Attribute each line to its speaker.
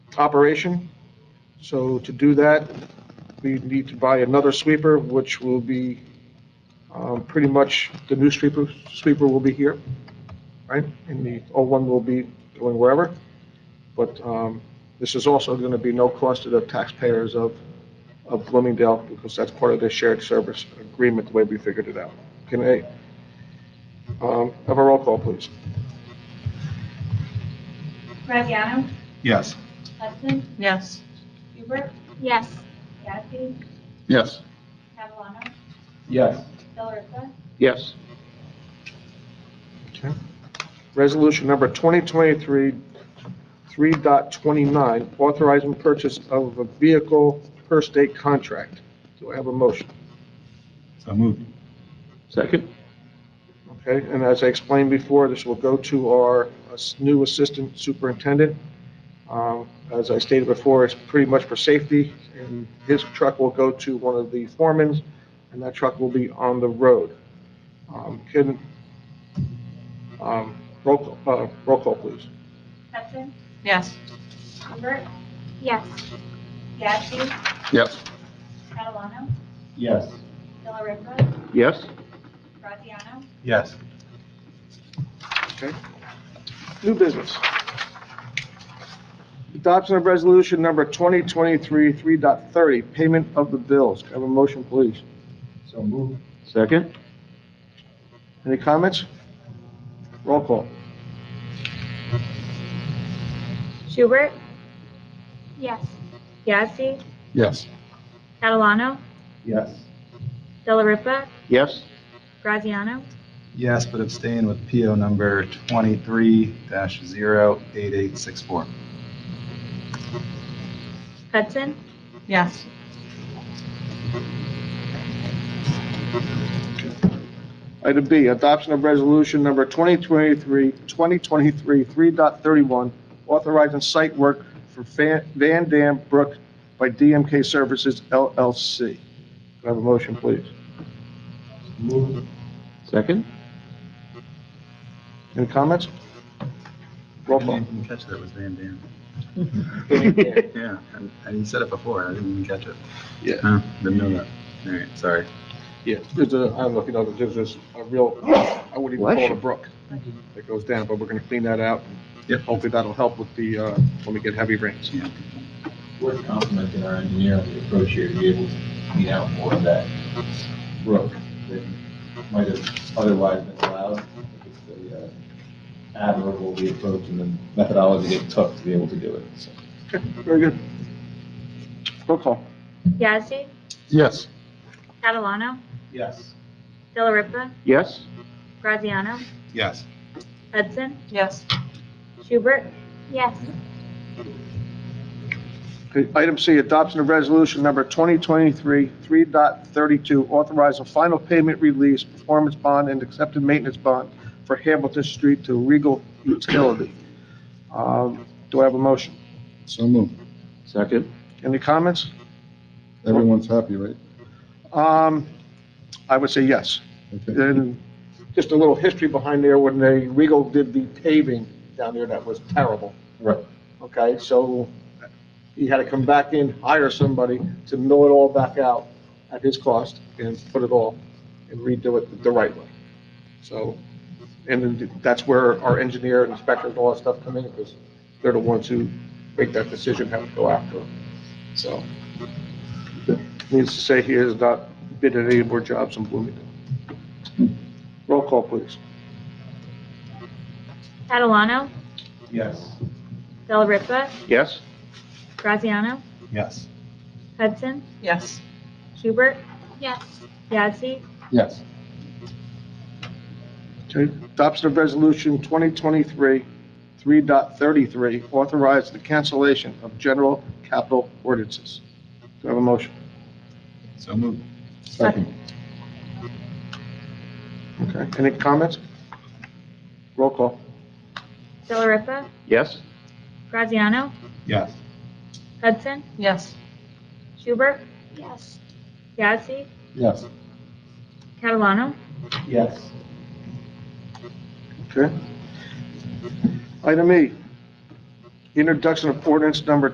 Speaker 1: operation. So to do that, we need to buy another sweeper, which will be, um, pretty much, the new sweeper, sweeper will be here, right? And the old one will be going wherever. But um, this is also going to be no cost to the taxpayers of, of Bloomingdale, because that's part of their shared service agreement, the way we figured it out. Can I um, have a roll call, please?
Speaker 2: Graziano?
Speaker 3: Yes.
Speaker 2: Hudson?
Speaker 4: Yes.
Speaker 2: Hubert?
Speaker 5: Yes.
Speaker 2: Yasi?
Speaker 3: Yes.
Speaker 2: Catalano?
Speaker 3: Yes.
Speaker 2: Delariva?
Speaker 3: Yes.
Speaker 1: Resolution number 2023, 3.29, authorizing purchase of a vehicle per state contract. Do I have a motion?
Speaker 3: So moved.
Speaker 6: Second?
Speaker 1: Okay, and as I explained before, this will go to our uh, new assistant superintendent. Um, As I stated before, it's pretty much for safety, and his truck will go to one of the foremans, and that truck will be on the road. Um, Can, um, roll call, uh, roll call, please.
Speaker 2: Hudson?
Speaker 4: Yes.
Speaker 2: Hubert?
Speaker 5: Yes.
Speaker 2: Yasi?
Speaker 6: Yes.
Speaker 2: Catalano?
Speaker 3: Yes.
Speaker 2: Delariva?
Speaker 6: Yes?
Speaker 2: Graziano?
Speaker 3: Yes.
Speaker 1: Okay. New business. Adoption of resolution number 2023-3.30, payment of the bills. Can I have a motion, please?
Speaker 3: So moved.
Speaker 6: Second?
Speaker 1: Any comments? Roll call.
Speaker 7: Schubert,
Speaker 5: Yes.
Speaker 7: Yazdi,
Speaker 3: Yes.
Speaker 7: Catalano,
Speaker 3: Yes.
Speaker 7: Delariva,
Speaker 6: Yes?
Speaker 7: Graziano,
Speaker 3: Yes, but abstain with PO number 23-08864.
Speaker 7: Hudson,
Speaker 4: Yes.
Speaker 1: Item B, adoption of resolution number 2023, 2023, 3.31, authorizing site work for Fan- Van Dam Brook by DMK Services LLC. Can I have a motion, please?
Speaker 3: Moved.
Speaker 6: Second?
Speaker 1: Any comments?
Speaker 3: I
Speaker 1: Roll call.
Speaker 3: didn't even catch that was Van Dam.
Speaker 1: Van Dam.
Speaker 3: Yeah, and- and you said it before, I didn't even catch it.
Speaker 1: Yeah.
Speaker 3: Huh, Didn't know that. All right, sorry.
Speaker 1: Yeah, there's a, I don't know if you know, there's this, a real, I wouldn't even call it a brook that goes down, but we're gonna clean that out.
Speaker 3: Yep.
Speaker 1: Hopefully that'll help with the, uh, when we get heavy rains.
Speaker 3: Yeah.
Speaker 8: We're complimenting our engineer on the approach here to be able to clean out more of that brook that might have otherwise been allowed. It's a, uh, Admirable the approach and the methodology it took to be able to do it, so.
Speaker 1: Very good. Roll call.
Speaker 7: Yazdi,
Speaker 3: Yes.
Speaker 7: Catalano,
Speaker 3: Yes.
Speaker 7: Delariva,
Speaker 6: Yes?
Speaker 7: Graziano,
Speaker 3: Yes.
Speaker 7: Hudson,
Speaker 4: Yes.
Speaker 7: Schubert,
Speaker 5: Yes.
Speaker 1: Okay, Item C, adoption of resolution number 2023 3.32, authorizing final payment release, performance bond, and accepted maintenance bond for Hamilton Street to Regal Utility. Um, Do I have a motion?
Speaker 9: So moved.
Speaker 6: Second?
Speaker 1: Any comments?
Speaker 9: Everyone's happy, right?
Speaker 1: Um, I would say yes.
Speaker 9: Okay.
Speaker 1: And just a little history behind there, when they, Regal did the paving down there, that was terrible.
Speaker 8: Right.
Speaker 1: Okay, so he had to come back in, hire somebody to mill it all back out at his cost and put it all and redo it the right way. So, and then that's where our engineer and inspector and all that stuff come in, because they're the ones who make that decision, how to go after it. So, needs to say he has not bid at any more jobs in Bloomington. Roll call, please.
Speaker 7: Catalano,
Speaker 8: Yes.
Speaker 7: Delariva,
Speaker 6: Yes?
Speaker 7: Graziano,
Speaker 3: Yes.
Speaker 7: Hudson,
Speaker 4: Yes.
Speaker 7: Schubert,
Speaker 5: Yes.
Speaker 7: Yazdi,
Speaker 9: Yes.
Speaker 1: Okay. Adoption of Resolution 2023, 3.33, authorize the cancellation of general capital ordinances. Do I have a motion?
Speaker 3: So moved.
Speaker 9: Second.
Speaker 1: Okay. Any comments? Roll call.
Speaker 7: Delariva,
Speaker 6: Yes?
Speaker 7: Graziano,
Speaker 3: Yes.
Speaker 7: Hudson,
Speaker 4: Yes.
Speaker 7: Schubert,
Speaker 5: Yes.
Speaker 7: Yazdi,
Speaker 9: Yes.
Speaker 7: Catalano,
Speaker 8: Yes.
Speaker 1: Okay. Item E, introduction of ordinance number